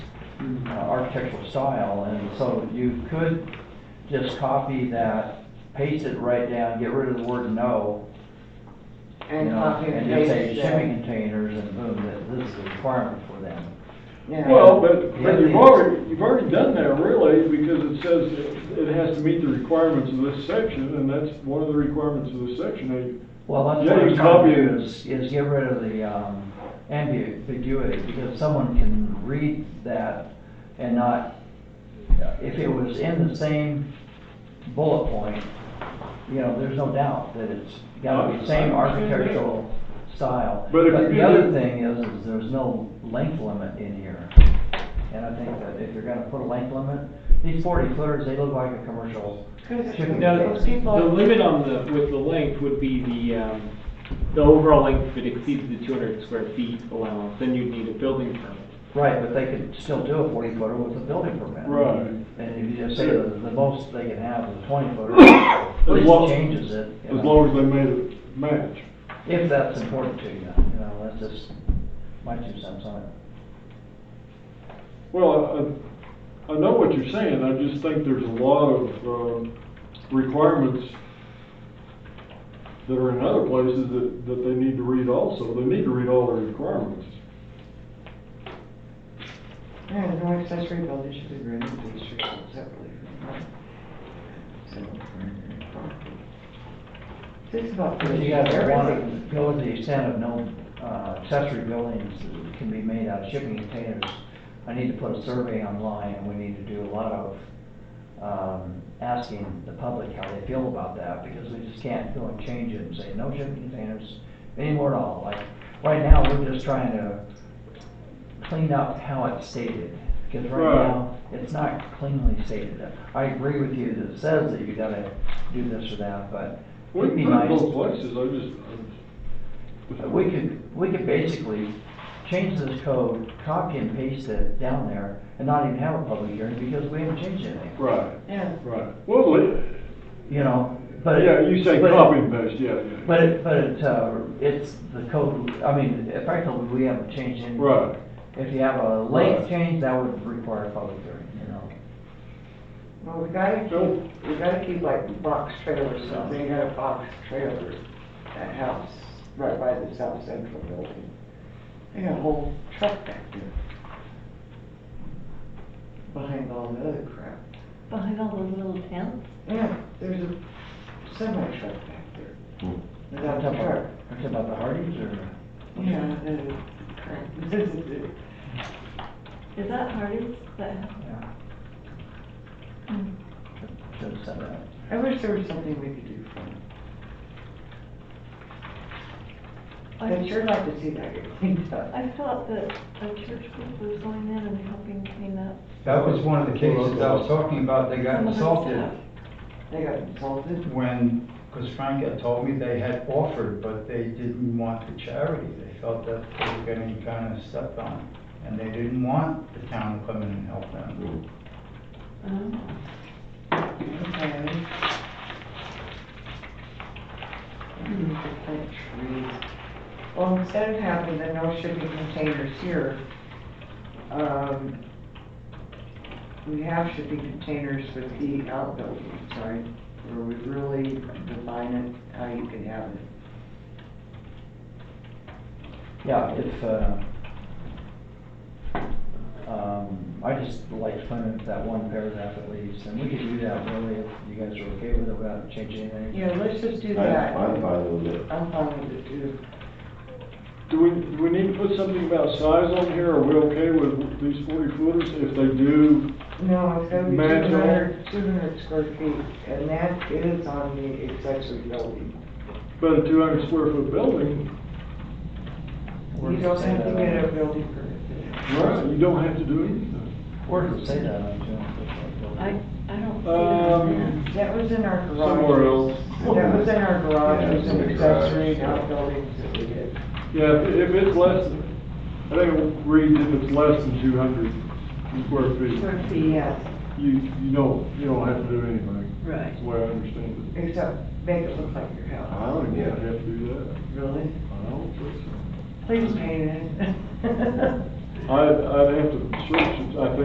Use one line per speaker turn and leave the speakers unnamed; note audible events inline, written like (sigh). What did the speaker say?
uh, architectural style, and so you could just copy that, paste it right down, get rid of the word no, you
And
know,
copy
and
and
just say
paste
shipping
that.
containers, and boom, that this is a requirement for them.
Yeah.
Well, but, but you've already, you've already done that really, because it says it- it has to meet the requirements of this section, and that's one of the requirements of this section. They-
Well, that's
Yeah,
what I'm
you
trying
copy
to
it.
do is, is get rid of the, um, ambiguity, because someone can read that and not, if it was in the same bullet point, you know, there's no doubt that it's gotta be the same architectural style.
But if you
the
do-
other thing is, is there's no length limit in here. And I think that if you're gonna put a length limit, these forty footers, they look like a commercial shipping
No,
container.
the limit on the, with the length would be the, um, the overall length if it exceeds the two hundred square feet allowance, then you'd need a building permit.
Right, but they could still do a forty footer with a building permit.
Right.
And if you just say the, the most they can have is a twenty footer, at
As
least
long-
changes it. you
As
know,
long as they made it match.
If that's important to you, you know, that's just my two cents on it.
Well, I, I know what you're saying, I just think there's a lot of, um, requirements that are in other places that, that they need to read also, they need to read all the requirements.
Yeah, no accessory building should be granted to be restricted separately from property. This is about.
But you gotta
everything.
want to go to the extent of no uh, accessory buildings that can be made out of shipping containers. I need to put a survey online and we need to do a lot of, um, asking the public how they feel about that because we just can't go and change it and say no shipping containers anymore at all. Like, right now, we're just trying to clean up how it's stated. Because right
Right.
now, it's not cleanly stated. I agree with you that it says that you gotta do this or that, but
We
it'd be
can put it
nice.
both places, I just, I just.
We could, we could basically change this code, copy and paste it down there, and not even have a public hearing, because we haven't changed anything,
Right,
Yeah,
right. Well, it-
you know? But it-
yeah, you say
but it-
copy and paste, yeah, yeah.
But it, but it, uh, it's the code, I mean, effectively, we haven't changed anything.
Right.
If you have a length
Right.
change, that would require a public hearing, you know?
well, we gotta keep, we gotta keep like box trailers, so they got a box trailer at house, right by the South Central building. They got a whole truck back there. Behind all the other crap.
Behind all those little tents?
Yeah, there's a semi truck back there.
Hmm.
We're
Without
talking
a truck.
about- we're talking about the Hardee's or?
Yeah, the crap.
Is that Hardee's? That-
yeah.
Mm.
Should have said that.
I wish there was something we could do for them. I'd sure like to see that get cleaned up.
I thought that a church group was going in and helping clean up.
That was one of the cases I was talking about, they got
some of the
insulted
stuff.
They got insulted.
when, because Frank had told me they had offered, but they didn't want the charity. They felt that they were getting kind of stepped on, and they didn't want the town to come in and help them.
Oh.
Okay. We Need to plant trees. Well, instead of having the no shipping containers here, um, we have shipping containers with the outbuildings, right? Where we really define it, how you can have it.
Yeah, if, uh, um, I just like to limit that one paragraph at least, and we could do that really if you guys are okay with it without changing anything.
Yeah, let's just do
I-
that.
I'm fine with it.
I'm fine with it too.
Do we, do we need to put something about size on here? Are we okay with these forty footers? If they do,
No, it's gotta be two
Mansion.
hundred, two hundred square feet, and that is on the accessory building.
but a two hundred square foot building,
Where
You
does it
don't
say
have to
that
get
on-
a building permit.
right, you don't have to do anything.
Where does it say that on June?
I, I don't see
Um,
that.
That was in our garage.
Somewhere else.
That was in our
Yeah,
garages
it's in
and
the garage,
accessory
yeah.
outbuildings that we did.
Yeah, if- if it's less, than I think it reads if it's less than two hundred square feet,
Square feet, yes,
you, you don't, you don't have to do anything.
Right.
That's the way I understand it.
except make it look like your
I
house.
don't even have to do that.
Really?
I don't think so.
Please paint it. (laughs)
I'd, I'd have to search, it. I